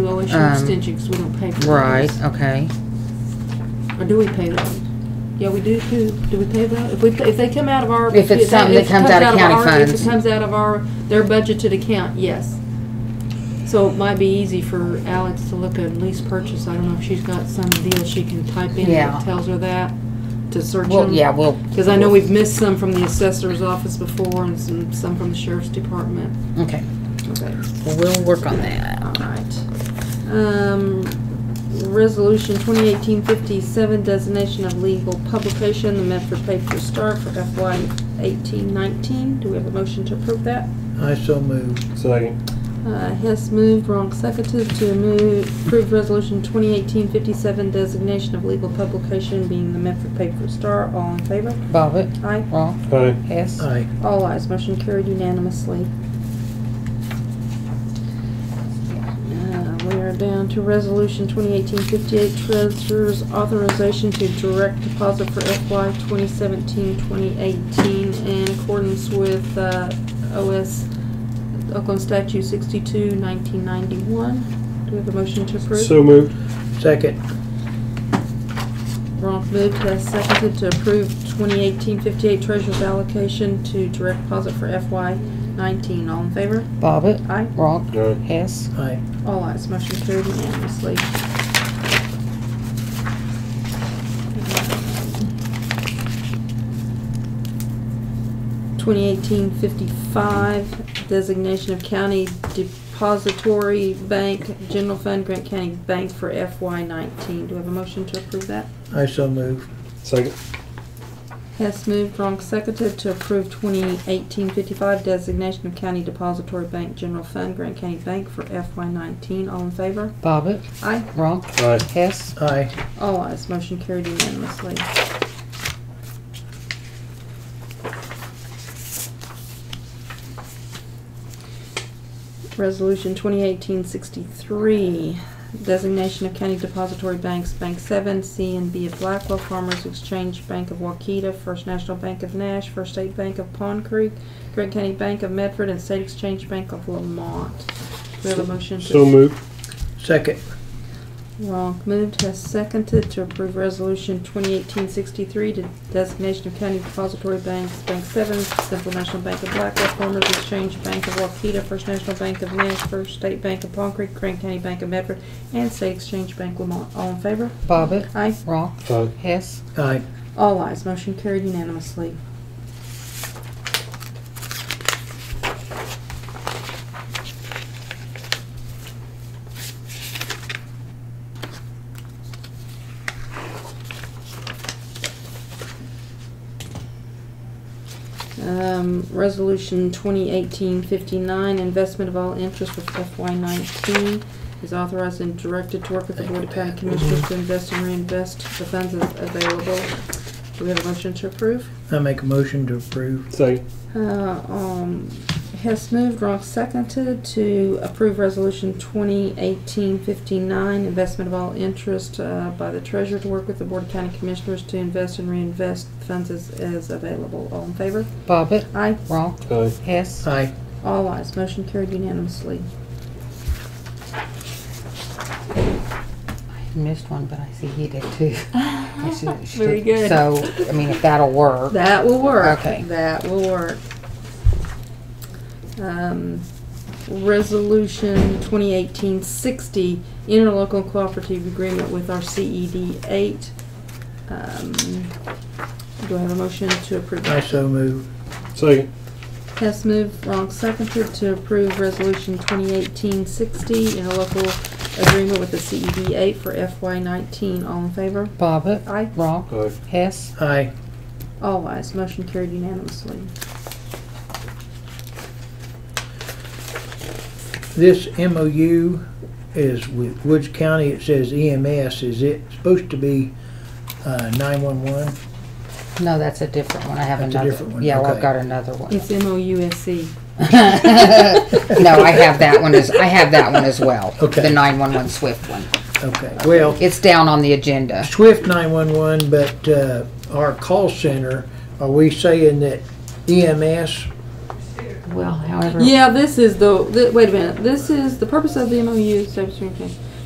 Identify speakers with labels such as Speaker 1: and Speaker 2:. Speaker 1: no, it's your
Speaker 2: Um,
Speaker 1: extension, because we don't pay for those.
Speaker 2: Right, okay.
Speaker 1: Or do we pay those? Yeah, we do, do, do we pay those? If we, if they come out of our.
Speaker 2: If it's
Speaker 1: they-
Speaker 2: something that
Speaker 1: if it
Speaker 2: comes out of county
Speaker 1: our- If
Speaker 2: funds.
Speaker 1: it comes out of our, their budgeted account, yes. So it might be easy for Alex to look at lease purchase, I don't know if she's got some deal she can type in
Speaker 2: Yeah.
Speaker 1: that tells her that, to search them.
Speaker 2: Well, yeah, we'll.
Speaker 1: Because I know we've missed some from the assessor's office before and some, some from the sheriff's department.
Speaker 2: Okay,
Speaker 1: Okay,
Speaker 2: well, we'll work on that.
Speaker 1: all right. Um, resolution 2018-57, designation of legal publication, the Medford Paper Star for FY eighteen nineteen. Do we have a motion to approve that?
Speaker 3: I so moved.
Speaker 4: Second.
Speaker 1: Uh, Hess moved, Ronk seconded to move, approve resolution 2018-57, designation of legal publication being the Medford Paper Star. All in favor?
Speaker 2: Bobbit,
Speaker 1: Aye.
Speaker 2: wrong,
Speaker 4: Aye.
Speaker 2: yes.
Speaker 3: Aye.
Speaker 1: All ayes, motion carried unanimously. Uh, We are down to resolution 2018-58, treasurer's authorization to direct deposit for FY 2017-2018 in accordance with uh, OS Oklahoma Statute 62, 1991. Do we have a motion to approve?
Speaker 4: So moved.
Speaker 3: Second.
Speaker 1: Ronk moved, Hess seconded to approve 2018-58 treasurer's allocation to direct deposit for FY 19. All in favor?
Speaker 2: Bobbit,
Speaker 1: Aye.
Speaker 2: wrong,
Speaker 4: Aye.
Speaker 2: yes.
Speaker 3: Aye.
Speaker 1: All ayes, motion carried unanimously. Twenty eighteen fifty-five, designation of county depository bank, general fund, Grant County Bank for FY nineteen. Do we have a motion to approve that?
Speaker 3: I so moved.
Speaker 4: Second.
Speaker 1: Hess moved, Ronk seconded to approve 2018-55 designation of county depository bank, general fund, Grant County Bank for FY nineteen. All in favor?
Speaker 2: Bobbit,
Speaker 1: Aye.
Speaker 2: wrong,
Speaker 4: Aye.
Speaker 2: yes.
Speaker 3: Aye.
Speaker 1: All ayes, Oh, motion carried unanimously. Resolution 2018-63, designation of county depository banks, Bank 7, C and B of Blackwell, Farmers Exchange Bank of Waukeeta, First National Bank of Nash, First State Bank of Pond Creek, Grant County Bank of Medford, and State Exchange Bank of Lamont. Do we have a motion to
Speaker 4: So moved.
Speaker 3: Second.
Speaker 1: Ronk moved, has seconded to approve resolution 2018-63 to designation of county depository banks, Bank 7, Central National Bank of Blackwell, Farmers Exchange Bank of Waukeeta, First National Bank of Nash, First State Bank of Palm Creek, Grant County Bank of Medford, and State Exchange Bank Lamont. All in favor?
Speaker 2: Bobbit,
Speaker 1: Aye.
Speaker 2: wrong,
Speaker 4: Aye.
Speaker 2: yes.
Speaker 3: Aye.
Speaker 1: All ayes, motion carried unanimously. Um, resolution 2018-59, investment of all interest with FY nineteen is authorized and directed to work with the Board of County Commissioners to invest and reinvest the funds as available. Do we have a motion to approve?
Speaker 3: I make a motion to approve.
Speaker 4: Second.
Speaker 1: Uh, um, Hess moved, Ronk seconded to approve resolution 2018-59, investment of all interest, uh, by the treasurer to work with the Board of County Commissioners to invest and reinvest funds as, as available. All in favor?
Speaker 2: Bobbit,
Speaker 1: Aye.
Speaker 2: wrong,
Speaker 4: Aye.
Speaker 2: yes.
Speaker 3: Aye.
Speaker 1: All ayes, motion carried unanimously.
Speaker 2: Missed one, but I see he did too. I should- should-
Speaker 1: Very good.
Speaker 2: So, I mean, if that'll work.
Speaker 1: That will work.
Speaker 2: Okay.
Speaker 1: That will work. Um, Resolution 2018-60, interlocal cooperative agreement with our CED 8. Um, Do I have a motion to approve?
Speaker 3: I so moved.
Speaker 4: Second.
Speaker 1: Hess moved, Ronk seconded to approve Resolution 2018-60, interlocal agreement with the CED 8 for FY19. All in favor?
Speaker 2: Bobbit,
Speaker 1: Aye.
Speaker 2: wrong,
Speaker 4: Aye.
Speaker 2: yes.
Speaker 3: Aye.
Speaker 1: All ayes, motion carried unanimously.
Speaker 3: This MOU is with Woods County. It says EMS. Is it supposed to be uh, 911?
Speaker 2: No, that's a different one. I have
Speaker 3: That's a
Speaker 2: another.
Speaker 3: different one,
Speaker 2: Yeah, well, I've
Speaker 3: okay.
Speaker 2: got another one.
Speaker 1: It's MOUSC.
Speaker 2: No, I have that one as, I have that one as well.
Speaker 3: Okay.
Speaker 2: The nine-one-one Swift one.
Speaker 3: Okay. Well,
Speaker 2: It's down on the agenda.
Speaker 3: Swift 911, but E uh, our call center, are we saying that EMS
Speaker 2: well, however.
Speaker 1: Yeah, this is the, thi- wait a minute, this is, the purpose of the MOU is to obtain-